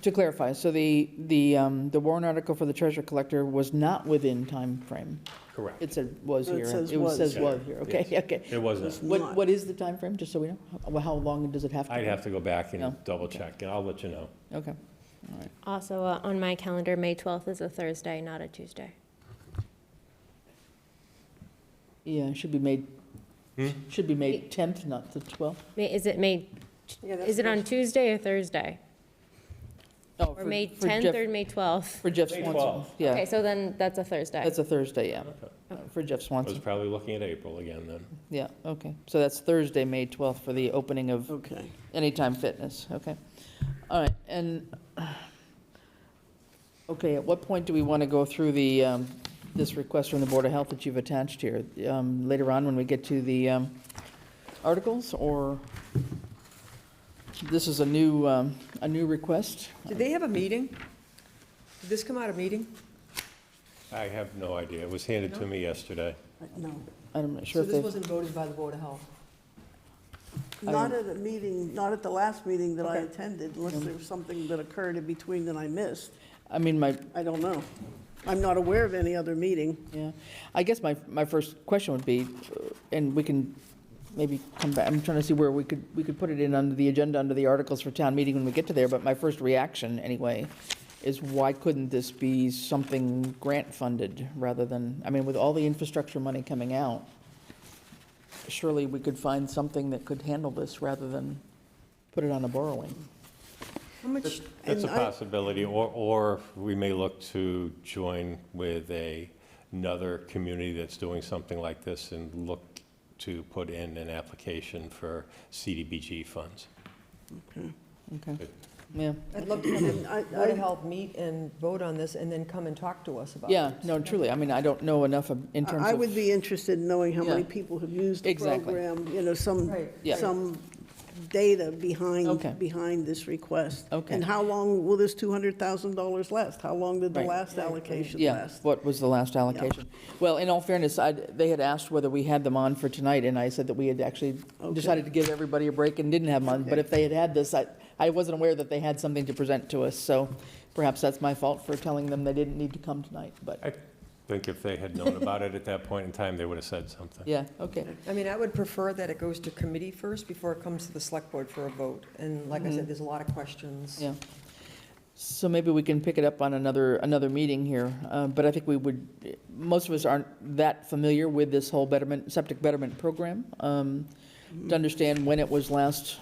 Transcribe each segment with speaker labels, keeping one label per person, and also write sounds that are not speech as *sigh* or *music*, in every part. Speaker 1: to clarify, so the, the, um, the warrant article for the treasure collector was not within time frame.
Speaker 2: Correct.
Speaker 1: It said was
Speaker 3: No, it
Speaker 1: here.
Speaker 3: says
Speaker 1: It was-
Speaker 3: was.
Speaker 1: says
Speaker 2: Yeah.
Speaker 1: was here, okay,
Speaker 2: Yes.
Speaker 1: okay.
Speaker 2: It wasn't.
Speaker 1: What,
Speaker 3: Not.
Speaker 1: what is the time frame? just so we know? How- How long does it have to?
Speaker 2: I'd
Speaker 1: be?
Speaker 2: have to go back
Speaker 1: No.
Speaker 2: and double check, and I'll let you know.
Speaker 1: Okay.
Speaker 4: Also, uh, on my calendar, May 12th is a Thursday, not a Tuesday.
Speaker 1: Yeah, it should be made,
Speaker 2: Hmm?
Speaker 1: should be made 10th, not the 12th.
Speaker 4: May- Is it May,
Speaker 3: Yeah, that's
Speaker 4: is it on
Speaker 3: first.
Speaker 4: Tuesday or Thursday?
Speaker 1: Oh,
Speaker 4: Or
Speaker 1: for-
Speaker 4: May
Speaker 1: for
Speaker 4: 10th
Speaker 1: Jeff-
Speaker 4: or May 12th?
Speaker 1: For Jeff
Speaker 2: May
Speaker 1: Swanson,
Speaker 2: 12th.
Speaker 1: yeah.
Speaker 4: Okay, so then that's a Thursday.
Speaker 1: That's a Thursday, yeah, for Jeff
Speaker 2: I was
Speaker 1: Swanson,
Speaker 2: probably looking at April again then.
Speaker 1: yeah, okay. So that's Thursday, May 12th, for the opening of
Speaker 3: Okay.
Speaker 1: Anytime Fitness, okay. All right, and, okay, at what point do we want to go through the, um, this request from the Board of Health that you've attached here? Um, Later on, when we get to the um, articles, or this is a new, um, a new request?
Speaker 3: Did they have a meeting? Did this come out of meeting?
Speaker 2: I have no idea. It was handed to me yesterday.
Speaker 3: No.
Speaker 1: I'm not
Speaker 5: So
Speaker 1: sure if
Speaker 5: this
Speaker 1: they've,
Speaker 5: wasn't voted by the Board of Health?
Speaker 3: Not at a meeting, not at the last meeting that I
Speaker 1: Okay.
Speaker 3: attended, unless there was something that occurred in between that I missed.
Speaker 1: I mean, my,
Speaker 3: I don't know. I'm not aware of any other meeting.
Speaker 1: Yeah, I guess my, my first question would be, uh, and we can maybe come back, I'm trying to see where we could, we could put it in under the agenda, under the articles for town meeting when we get to there, but my first reaction anyway is why couldn't this be something grant funded rather than, I mean, with all the infrastructure money coming out, surely we could find something that could handle this rather than put it on a borrowing.
Speaker 3: How much?
Speaker 2: That's a
Speaker 3: and I-
Speaker 2: possibility, or, or we may look to join with a, another community that's doing something like this and look to put in an application for CDBG funds.
Speaker 1: Okay,
Speaker 2: Good.
Speaker 1: yeah,
Speaker 5: I'd love to have the
Speaker 3: and I-
Speaker 5: Board of
Speaker 3: I-
Speaker 5: Health meet and vote on this, and then come and talk to us about it.
Speaker 1: yeah, no, truly, I mean, I don't know enough of- in terms of.
Speaker 3: I would be interested in knowing how many
Speaker 1: Yeah.
Speaker 3: people have used the
Speaker 1: Exactly.
Speaker 3: program, you know, some,
Speaker 5: Right.
Speaker 1: Yeah.
Speaker 3: some data
Speaker 1: Okay.
Speaker 3: behind, behind this request.
Speaker 1: Okay.
Speaker 3: And how long will this $200,000 last? How long did the
Speaker 1: Right.
Speaker 3: last allocation
Speaker 1: Yeah,
Speaker 3: last?
Speaker 1: what was the last allocation? Well, in all fairness, I, they had asked whether we had them on for tonight, and I said that we had actually
Speaker 3: Okay.
Speaker 1: decided to give everybody a break and didn't have them on, but if they had had this, I, I wasn't aware that they had something to present to us, so perhaps that's my fault for telling them they didn't need to come tonight, but,
Speaker 2: I think if they had known about it at that point in time, they would have said something.
Speaker 1: yeah, okay.
Speaker 5: I mean, I would prefer that it goes to committee first before it comes to the select board for a vote. And like I said, there's a lot of questions.
Speaker 1: Mm-hmm. Yeah. So maybe we can pick it up on another, another meeting here, uh, but I think we would, most of us aren't that familiar with this whole betterment, septic betterment program, um, to understand when it was last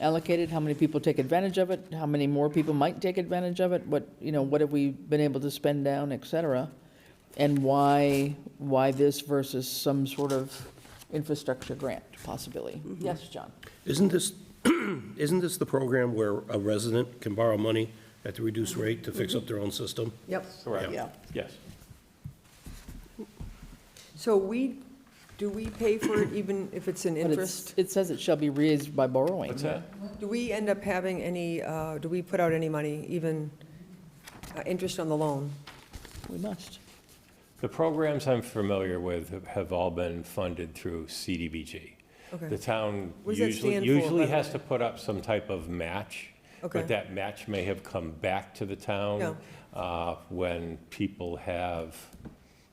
Speaker 1: allocated, how many people take advantage of it, how many more people might take advantage of it, what, you know, what have we been able to spend down, et cetera, and why, why this versus some sort of infrastructure grant possibility. Yes, John?
Speaker 6: Isn't this, *clears throat* isn't this the program where a resident can borrow money at the reduced rate to fix up their own system?
Speaker 5: Yep.
Speaker 2: Correct.
Speaker 3: Yeah.
Speaker 2: Yes.
Speaker 5: So we, do we pay for it even if it's in
Speaker 1: But it's-
Speaker 5: interest?
Speaker 1: It says it shall be raised by borrowing.
Speaker 2: What's that?
Speaker 5: Do we end up having any, uh, do we put out any money, even uh, interest on the loan?
Speaker 1: We must.
Speaker 2: The programs I'm familiar with have- have all been funded through CDBG. The
Speaker 5: Okay,
Speaker 2: town
Speaker 5: What does that
Speaker 2: usually,
Speaker 5: stand for,
Speaker 2: usually
Speaker 5: by the
Speaker 2: has to put up some type of match.
Speaker 5: Okay.
Speaker 2: But that match may have come back to the town uh, when people have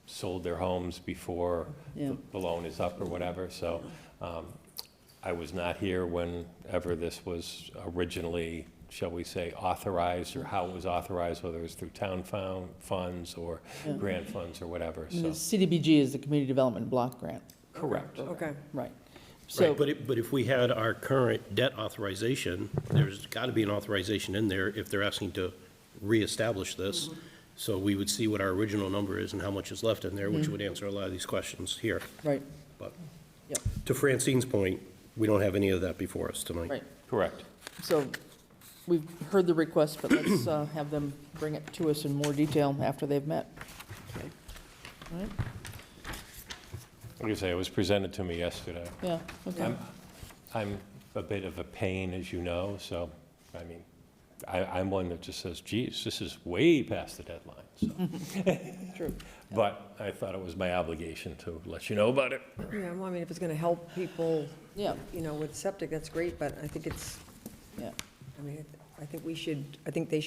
Speaker 2: sold their homes before
Speaker 1: Yeah.
Speaker 2: the the loan is up or whatever. So um, I was not here whenever this was originally, shall we say, authorized or how it was authorized, whether it was through town found funds or grant funds or whatever,
Speaker 1: And the
Speaker 2: so.
Speaker 1: CDBG is the Community Development Block Grant,
Speaker 2: Correct.
Speaker 5: okay.
Speaker 1: right. So,
Speaker 6: Right, but if, but if we had our current debt authorization, there's got to be an authorization in there if they're asking to reestablish this.
Speaker 1: Mm-hmm.
Speaker 6: So we would see what our original number is and how much is left in there,
Speaker 1: Mm-hmm.
Speaker 6: which would answer a lot of these questions here.
Speaker 1: right,
Speaker 6: But
Speaker 1: Yep.
Speaker 6: to Francine's point, we don't have any of that before us tonight.
Speaker 1: right.
Speaker 2: Correct.
Speaker 1: So we've heard the request, but let's uh, have them bring it to us in more detail after they've met. All right,
Speaker 2: Like I say, it was presented to me yesterday.
Speaker 1: yeah, okay.
Speaker 2: I'm- I'm a bit of a pain, as you know, so, I mean, I, I'm one that just says, geez, this is way past the deadline, so.
Speaker 1: True.
Speaker 2: But I thought it was my obligation to let you know about it.
Speaker 5: Yeah, well, I mean, if it's going to help people,
Speaker 1: Yeah,
Speaker 5: you know, with septic, that's great, but I think it's,
Speaker 1: yeah.
Speaker 5: I mean, I I think we should, I think they